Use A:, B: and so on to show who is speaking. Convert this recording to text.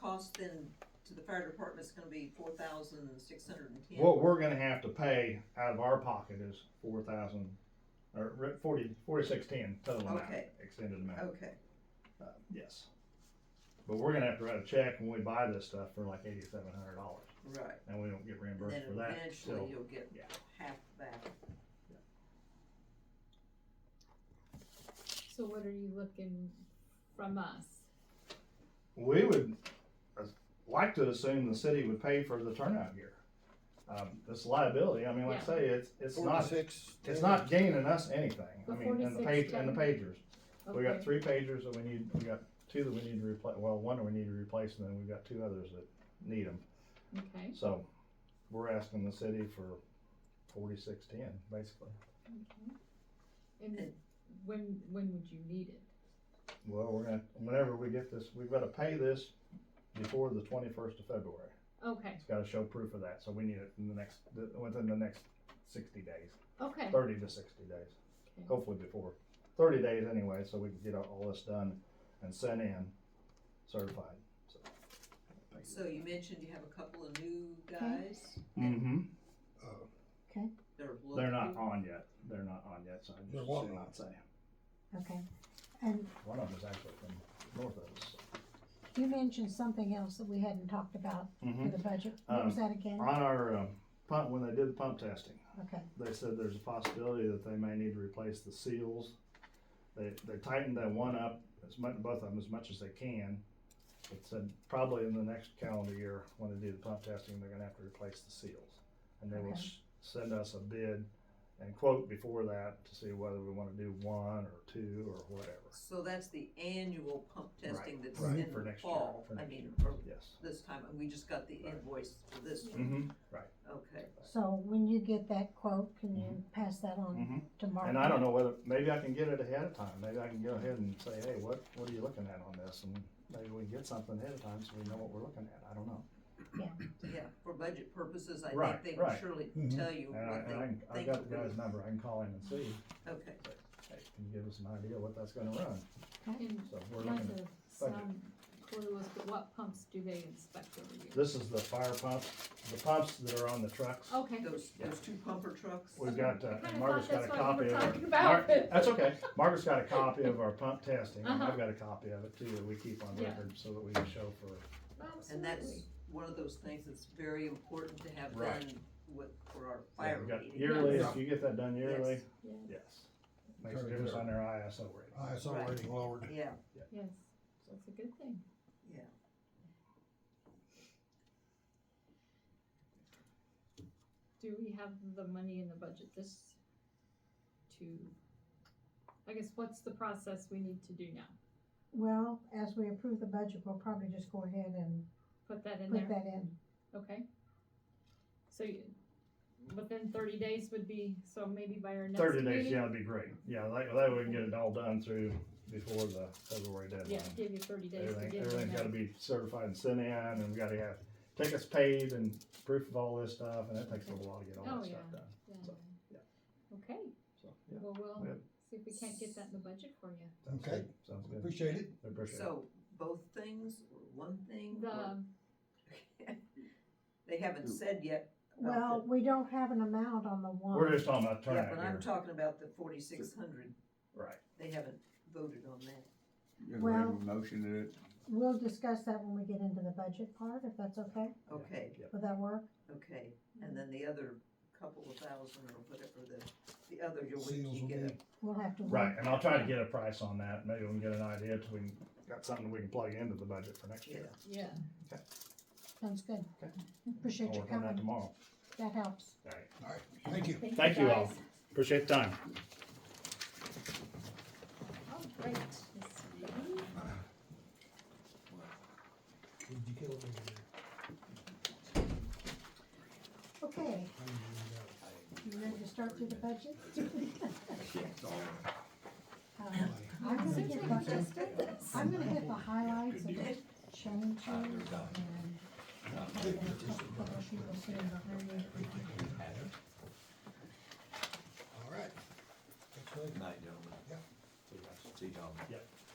A: cost then to the fire department's gonna be four thousand six hundred and ten?
B: What we're gonna have to pay out of our pocket is four thousand, or re- forty, forty-six ten total amount,
A: Okay.
B: extended amount,
A: Okay,
B: uh, yes. But we're gonna have to write a check when we buy this stuff for like eighty-seven hundred dollars,
A: right,
B: and we don't get
A: and
B: reimbursed
A: then
B: for that,
A: eventually
B: so,
A: you'll get
B: yeah.
A: half that.
C: So what are you looking from us?
B: we would uh, like to assume the city would pay for the turnout gear. Um, this liability, I mean, like I
C: Yeah.
B: say, it's, it's not,
D: Forty-six.
B: it's not gaining us anything, I
C: The
B: mean, and the page,
C: 46
B: and the
C: ton?
B: pagers. We got
C: Okay.
B: three pagers that we need, we got two that we need to replace, well, one that we need to replace, and then we've got two others that need them.
C: Okay,
B: So, we're asking the city for forty-six ten, basically.
C: okay. And when, when would you need it?
B: Well, we're gonna, whenever we get this, we've gotta pay this before the twenty-first of February.
C: Okay,
B: It's gotta show proof of that, so we need it in the next, within the next sixty days,
C: okay.
B: thirty to sixty days.
C: Okay.
B: hopefully before thirty days anyway, so we can get all all this done and sent in certified.
A: So you mentioned you have a couple of new guys
B: Mm-hmm.
D: Oh,
A: that are looking.
B: They're not on yet. They're not on yet, so I
D: They're
B: just
D: what?
B: should not say.
E: Okay, and
B: One of them is actually from north of us.
E: you mentioned something else that we hadn't talked about for
B: Mm-hmm.
E: the budget. What was that again?
B: On our um, pump, when they did the pump testing,
E: Okay,
B: they said there's a possibility that they may need to replace the seals. They, they tightened that one up as much, both of them as much as they can. It said probably in the next calendar year, when they do the pump testing, they're gonna have to replace the seals. And they will
E: Okay.
B: s- send us a bid and quote before that to see whether we wanna do one or two or whatever.
A: So that's the annual pump testing that's
D: right,
A: in
B: for
A: the
B: next year,
A: fall,
B: for
A: I
B: next
A: mean,
B: year.
A: or
B: Yes.
A: this time, and we just got the
B: Right.
A: invoice for this one,
B: Mm-hmm.
A: okay.
E: so when you get that quote, can you pass that on
B: Mm-hmm.
E: to Mark?
B: And I don't know whether, maybe I can get it ahead of time, maybe I can go ahead and say, hey, what, what are you looking at on this? And maybe we can get something ahead of time so we know what we're looking at, I don't know.
A: Yeah, for budget purposes, I
B: Right,
A: think they would
B: right.
A: surely
D: Mhm.
A: tell you
B: And I,
A: what
B: and I, can-
A: they
B: I've
A: think.
B: got the
A: it
B: guy's
A: would-
B: number, I can call him and see,
A: Okay,
B: hey, can you give us an idea what that's gonna run?
C: And
B: So we're
C: not
B: looking,
C: to sound clueless, but what pumps do they inspect every year?
B: this is the fire pump, the pumps that are on the trucks.
C: Okay.
A: those, those two pumper trucks,
B: We've got, uh,
C: Oh, I kinda
B: and Margaret's got a
C: thought that's what
B: copy
C: you
B: of
C: were
B: it.
C: talking about.
B: Mar- That's okay, Margaret's got a copy of our pump testing, and I've
C: Uh-huh.
B: got a copy of it too, that we keep on
C: Yeah.
B: record so that we can show for
A: and
C: Absolutely.
A: that's one of those things that's very important to have
B: Right.
A: done with, for our
B: Yeah,
A: fire
B: we
A: meeting.
B: got Yearly,
C: Yes.
B: if you get that done yearly,
C: Yes,
B: yes. Makes a
D: Very
B: difference
D: good.
B: on their ISO rating.
D: I saw
A: Right.
D: rating lowered.
A: Yeah,
C: yes. That's a good thing.
A: yeah.
C: Do we have the money in the budget this to, I guess, what's the process we need to do now?
E: Well, as we approve the budget, we'll probably just go ahead and
C: Put that in
E: put
C: there,
E: that in.
C: okay? So you, within thirty days would be, so maybe by our next
B: Thirty
C: meeting?
B: days, yeah, that'd be great, yeah, that, that way we can get it all done through before the February
C: Yeah,
B: deadline.
C: give you thirty days to
B: Everything,
C: get
B: everything's gotta be certified and sent in, and we gotta have tickets paid and proof of all this stuff, and that takes a little while to get all
C: Oh,
B: that stuff
C: yeah.
B: done, so, yeah.
C: Okay,
B: so, yeah.
C: well, we'll
B: Yep.
C: see if we can't get that in the budget for you.
B: sounds
D: Okay.
B: good, Sounds good,
D: Appreciate it.
B: I appreciate it.
A: So both things, or one thing, or-
C: The,
A: they haven't said yet. about
E: Well, we don't have an amount on the
B: We're
E: one.
B: just talking about
A: the- Yeah,
B: turnout
A: but I'm
B: here,
A: talking about the forty-six hundred,
B: right,
A: they haven't voted on that.
F: Just leave
E: Well-
F: a motion to it.
E: We'll discuss that when we get into the budget part, if that's okay.
A: Okay,
E: Would that work?
A: okay, and then the other couple of thousand or whatever, the, the other, you'll wait till
D: Seals
A: you
D: will
A: get
D: be.
A: it.
E: We'll have to. wait.
B: right, and I'll try to get a price on that, maybe we can get an idea till we can- got something we can plug into the budget for next year.
C: yeah,
E: Sounds good.
B: Okay. I'll
E: Appreciate your
B: work on that
E: coming.
B: tomorrow,
E: That helps.
B: alright.
D: All right, thank you.
B: Thank you all.
C: guys.
B: Appreciate the time.
C: All right, Miss Reed.
D: Did you kill it?
E: Okay, you ready to start through the budget? Um, I'm gonna
C: Seems
E: hit
C: like we
E: the,
C: just did this.
E: I'm gonna hit the highlights and changes and.
D: All right. That's good.
F: Night, gentlemen.
D: Yeah.
F: See y'all.
B: Yep.